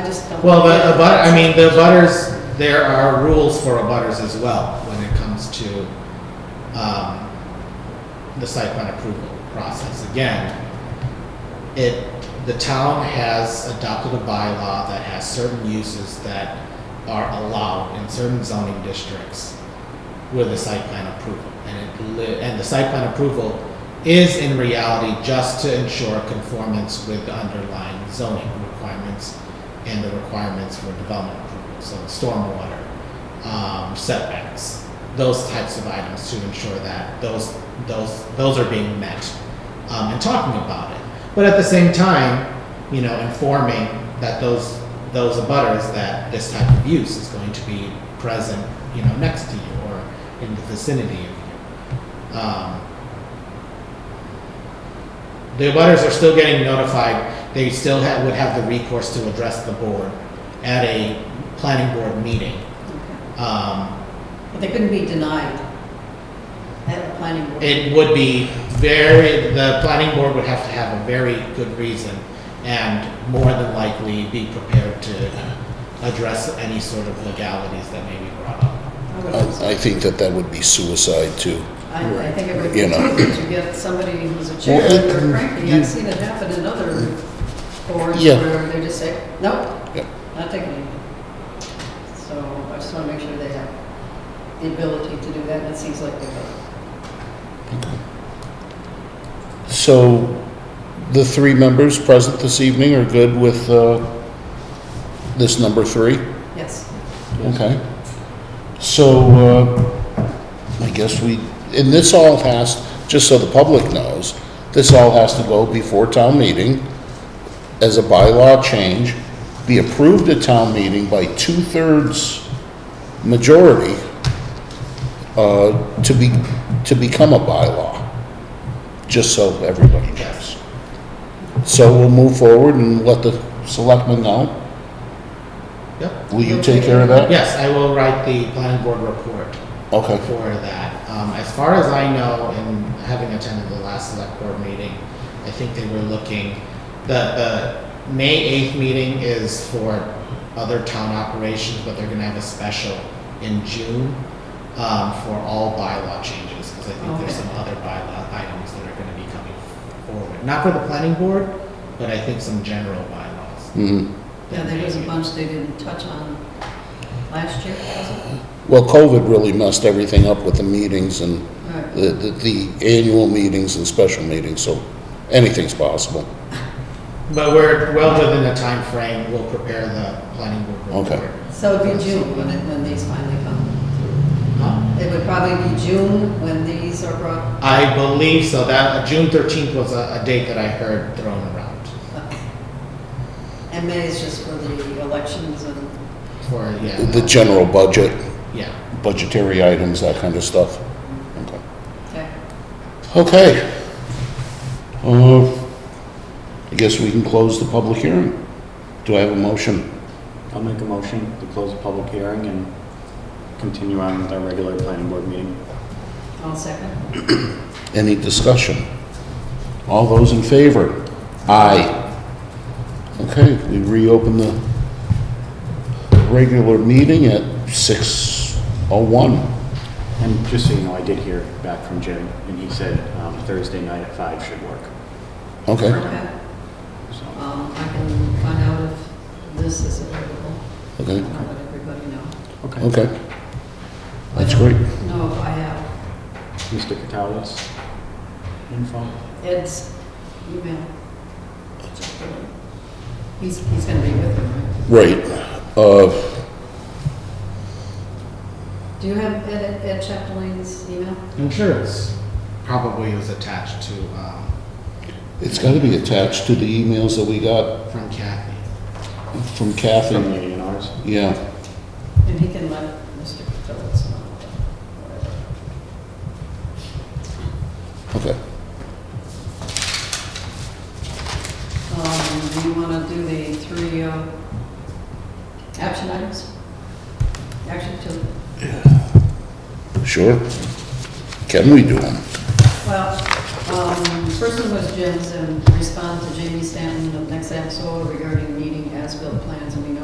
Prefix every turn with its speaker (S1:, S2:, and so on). S1: I just don't.
S2: Well, but, but, I mean, the butters, there are rules for abutters as well when it comes to, um, the site plan approval process. Again, it, the town has adopted a bylaw that has certain uses that are allowed in certain zoning districts with a site plan approval. And it li- and the site plan approval is in reality just to ensure conformance with the underlying zoning requirements and the requirements for development approval, so stormwater, um, setbacks, those types of items to ensure that those, those, those are being met, um, and talking about it. But at the same time, you know, informing that those, those abutters that this type of use is going to be present, you know, next to you or in the vicinity of you. Um, the abutters are still getting notified, they still ha would have the recourse to address the board at a planning board meeting.
S1: Okay.
S2: Um,
S1: But they couldn't be denied at the planning board.
S2: it would be very, the planning board would have to have a very good reason and more than likely be prepared to address any sort of legalities that may be brought up.
S1: I would hope so.
S3: I I think that that would be suicide too.
S1: I, I think it would be
S3: You know.
S1: too, to get somebody who's a chair,
S3: Well, it-
S1: or frankly,
S3: you-
S1: I've seen it happen in other boards
S3: Yeah.
S1: where they just say, nope,
S3: Yep.
S1: not taking it. So I just want to make sure they have the ability to do that, and it seems like they do.
S3: So the three members present this evening are good with uh, this number three?
S1: Yes,
S3: Okay. So uh, I guess we, and this all has, just so the public knows, this all has to go before town meeting as a bylaw change, be approved at town meeting by two-thirds majority uh, to be, to become a bylaw, just so everybody knows. So we'll move forward and let the selectmen know.
S2: Yep,
S3: Will you take care of that?
S2: yes, I will write the planning board report.
S3: Okay.
S2: for that. Um, as far as I know, and having attended the last select board meeting, I think they were looking, the, the May eighth meeting is for other town operations, but they're gonna have a special in June, um, for all bylaw changes, because I think there's
S1: Okay.
S2: some other bylaw items that are gonna be coming forward. Not for the planning board, but I think some general bylaws.
S3: Mhm.
S1: yeah, there was a bunch they didn't touch on last year, was
S3: Well, COVID really messed everything up with the meetings and
S1: it? All right.
S3: the, the, the annual meetings and special meetings, so anything's possible.
S2: But we're well within the time frame. we'll prepare the planning board
S3: Okay.
S2: report.
S1: So it'd be June when it, when these finally come.
S2: Huh?
S1: It would probably be June when these are brought,
S2: I believe so, that, uh, June thirteenth was a, a date that I heard thrown around
S1: up. and May is just for the elections and,
S2: for, yeah.
S3: The general budget,
S2: Yeah,
S3: budgetary items, that kind of stuff. Okay.
S1: okay.
S3: Okay. Uh, I guess we can close the public hearing. Do I have a motion?
S4: I'll make a motion to close the public hearing and continue on with our regular planning board meeting.
S1: All second?
S3: Any discussion? All those in favor? Aye. Okay, we reopen the regular meeting at 6:01.
S4: And just so you know, I did hear back from Jim, and he said um, Thursday night at five should work.
S3: Okay.
S1: Okay.
S4: So,
S1: Um, I can find out if this is available.
S3: Okay,
S1: I'll let everybody know.
S4: okay.
S3: okay. That's great.
S1: No, if I have
S4: Mr. Catali's info?
S1: Ed's email. He's, he's gonna be with him,
S3: Right. Uh,
S1: right? Do you have Ed, Ed Chapdelain's email?
S2: I'm sure it's, probably was attached to, um,
S3: It's got to be attached to the emails that we got
S2: from Kathy.
S3: from
S4: From
S3: Kathy.
S4: the A and R's?
S3: Yeah,
S1: And he can let Mr. Phillips know. whatever.
S3: okay.
S1: Um, do you want to do the three, uh, action items? Action two,
S3: Sure. Can we do them?
S1: well, Um, First one was Jim's, and respond to Jamie Stanton of Next App Solar regarding needing as-built plans, and we know